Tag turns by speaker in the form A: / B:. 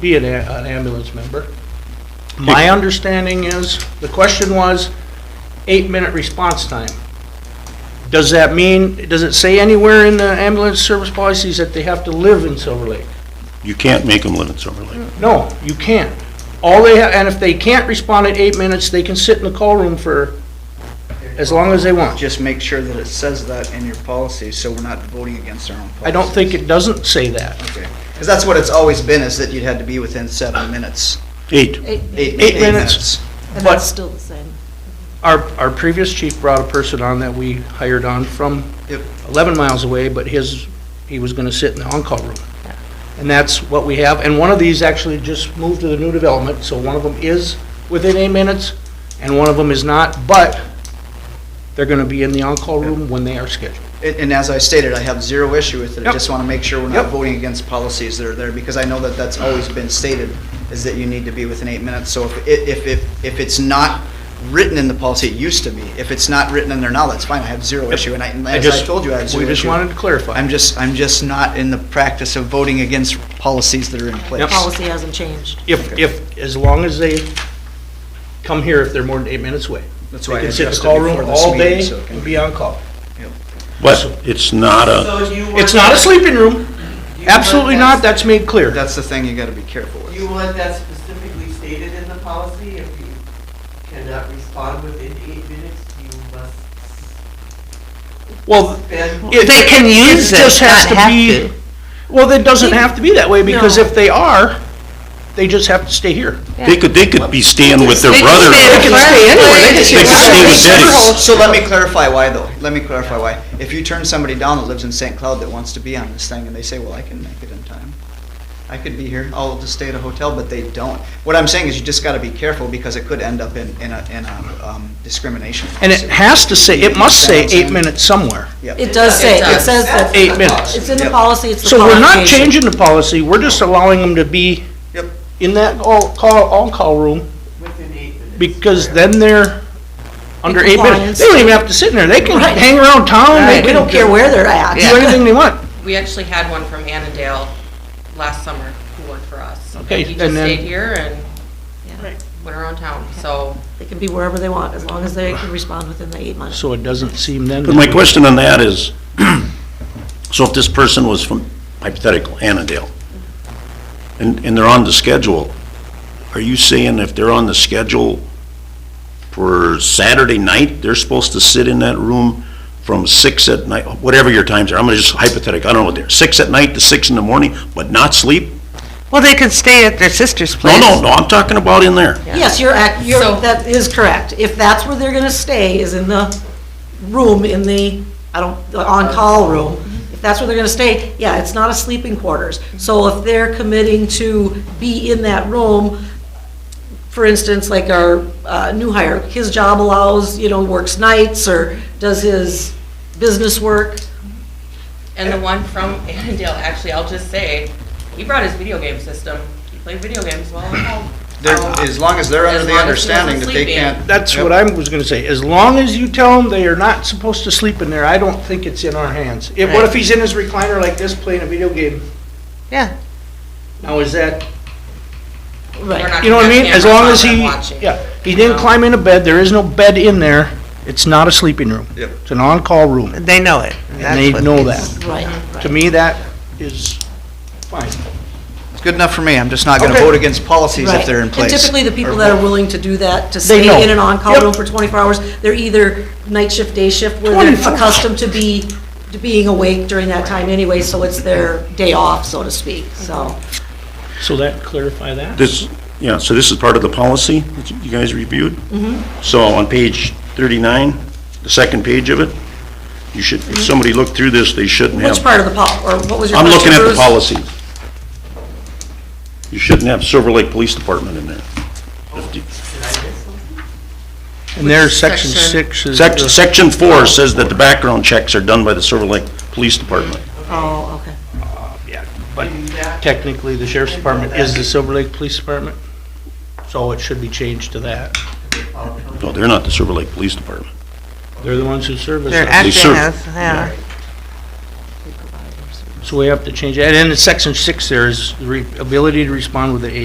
A: be an a- an ambulance member. My understanding is, the question was, eight-minute response time. Does that mean, does it say anywhere in the ambulance service policies that they have to live in Silver Lake?
B: You can't make them live in Silver Lake.
A: No, you can't. All they, ha- and if they can't respond in eight minutes, they can sit in the call room for as long as they want.
C: Just make sure that it says that in your policy, so we're not voting against our own policy.
A: I don't think it doesn't say that.
C: Because that's what it's always been, is that you had to be within seven minutes.
B: Eight,
C: Eight
A: Eight minutes.
D: And
A: But-
D: that's still the same.
A: Our, our previous chief brought a person on that we hired on from
C: Yep.
A: 11 miles away, but his, he was going to sit in the on-call room. And that's what we have, and one of these actually just moved to the new development, so one of them is within eight minutes, and one of them is not, but they're going to be in the on-call room when they are scheduled.
C: And, and as I stated, I have zero issue with it. I
A: Yep.
C: just want to make sure we're
A: Yep.
C: not voting against policies that are there, because I know that that's always been stated, is that you need to be within eight minutes. So if, it- if, if, if it's not written in the policy, it used to be, if it's not written in there now, that's fine, I have zero issue. And I, and
A: I
C: as I
A: just-
C: told you, I have zero
A: We just
C: issue.
A: wanted to clarify.
C: I'm just, I'm just not in the practice of voting against policies that are in place.
D: The Policy hasn't changed.
A: If, if, as long as they come here if they're more than eight minutes away.
C: That's
A: They
C: why I
A: can sit in the
C: addressed it
A: call room
C: before this
A: all
C: meeting,
A: day
C: so it can
A: and
C: be-
A: be on call.
B: but it's not a,
E: So you
A: Uh, It's
E: want-
A: not a sleeping room,
E: you want
A: absolutely
E: that-
A: not, that's made clear.
C: That's the thing you gotta be careful with.
E: You want that specifically stated in the policy, if you cannot respond within eight minutes, you must
A: Well,
E: spend.
A: It-
F: They can
A: it-
F: use it,
A: just has
F: not have
A: be-
F: to.
A: Well, it doesn't have to be that way, because
D: No.
A: if they are, they just have to stay here.
B: they could, they could be staying with their
F: They
B: brother.
A: can
F: can stay
A: stay anywhere, they
F: anywhere.
A: just-
B: They could stay with Denny's.
C: So let me clarify why though, let me clarify why. If you turn somebody down that lives in St. Cloud that wants to be on this thing and they say, well, I can make it in time. I could be here, I'll just stay at a hotel, but they don't. What I'm saying is you just gotta be careful because it could end up in, in a, in a um, discrimination.
A: And it
C: lawsuit.
A: has to say, it must say
C: Sounds
A: eight
C: in.
A: minutes somewhere,
C: Yep.
D: It does say, it
F: does.
D: says that,
A: eight minutes.
D: it's in the
C: Yep.
D: policy, it's the
A: So we're not
D: qualification.
A: changing the policy, we're just allowing them to be
C: Yep.
A: in that all, call, on-call room,
E: Within eight minutes.
A: because then they're under eight minutes.
D: compliance.
A: They don't even have to sit in there, they can hang around town, they
D: We
A: can
D: don't care where they're at.
A: do anything they want.
G: We actually had one from Annandale last summer who worked for us.
A: Okay,
G: He
A: and
G: just
A: then-
G: stayed here and
D: Yeah.
G: went around town, so.
D: They can be wherever they want, as long as they can respond within the eight months.
A: So it doesn't seem then.
B: But my question on that is, so if this person was from hypothetical Annandale, and, and they're on the schedule, are you saying if they're on the schedule for Saturday night, they're supposed to sit in that room from six at night, whatever your times are, I'm gonna just hypothetical, I don't know what they're, six at night to six in the morning, but not sleep?
F: Well, they could stay at their sister's
B: No,
F: place.
B: no, no, I'm talking about in there.
D: Yes, you're, ac- you're,
G: So-
D: that is correct. If that's where they're gonna stay, is in the room, in the, I don't, the on-call room, if that's where they're gonna stay, yeah, it's not a sleeping quarters. So if they're committing to be in that room, for instance, like our uh, new hire, his job allows, you know, works nights or does his business work,
G: And the one from Annandale, actually, I'll just say, he brought his video game system. He played video games while at home.
C: They're-
G: Um,
C: As long as they're
G: as
C: under the
G: long as he
C: understanding that
G: wasn't
C: they
G: sleeping.
C: can't.
A: That's
C: Yep.
A: what I was gonna say, as long as you tell them they are not supposed to sleep in there, I don't think it's in our hands. If, what if he's in his recliner like this playing a video game?
F: Yeah.
A: Now, is that,
D: right?
G: We're not
A: you know what I
G: gonna
A: mean?
G: have
A: As long as he,
G: cameras on them watching.
A: yeah, he didn't climb into bed, there is no bed in there, it's not a sleeping room.
C: Yep.
A: It's an on-call room,
F: They know it.
A: and they know that.
D: Right,
A: To
D: right.
A: me, that is fine.
C: It's good enough for me, I'm just not gonna
A: Okay.
C: vote against policies
D: Right.
C: if they're in
D: And
C: place.
D: typically, the people
C: Or-
D: that are willing to do that, to stay
A: know.
D: in an on-call
A: Yep.
D: room for 24 hours, they're either night shift, day shift, where they're
A: 24.
D: accustomed to be, to being awake during that time anyway, so it's their day off, so to speak, so.
A: So that clarify that?
B: This, yeah, so this is part of the policy that you guys reviewed? Mm-hmm. So on page 39, the second page of it, you should, if somebody looked through this, they shouldn't have.
D: Mm-hmm. Which part of the pol, or what was your
B: I'm
D: question,
B: looking at the
D: Bruce?
B: policy. You shouldn't have Silver Lake Police Department in there.
A: And there's section six is. uh,
B: Sec- Section 4 says that the background checks are done by the Silver Lake Police Department.
D: Oh, okay.
A: Yeah, but technically, the sheriff's department is the Silver Lake Police Department, so it should be changed to that.
B: No, they're not the Silver Lake Police Department.
A: They're the ones who service
F: They're
A: us.
F: acting
B: serve.
F: as, yeah.
A: So we have to change, that. and in section six there is the re- ability to respond with the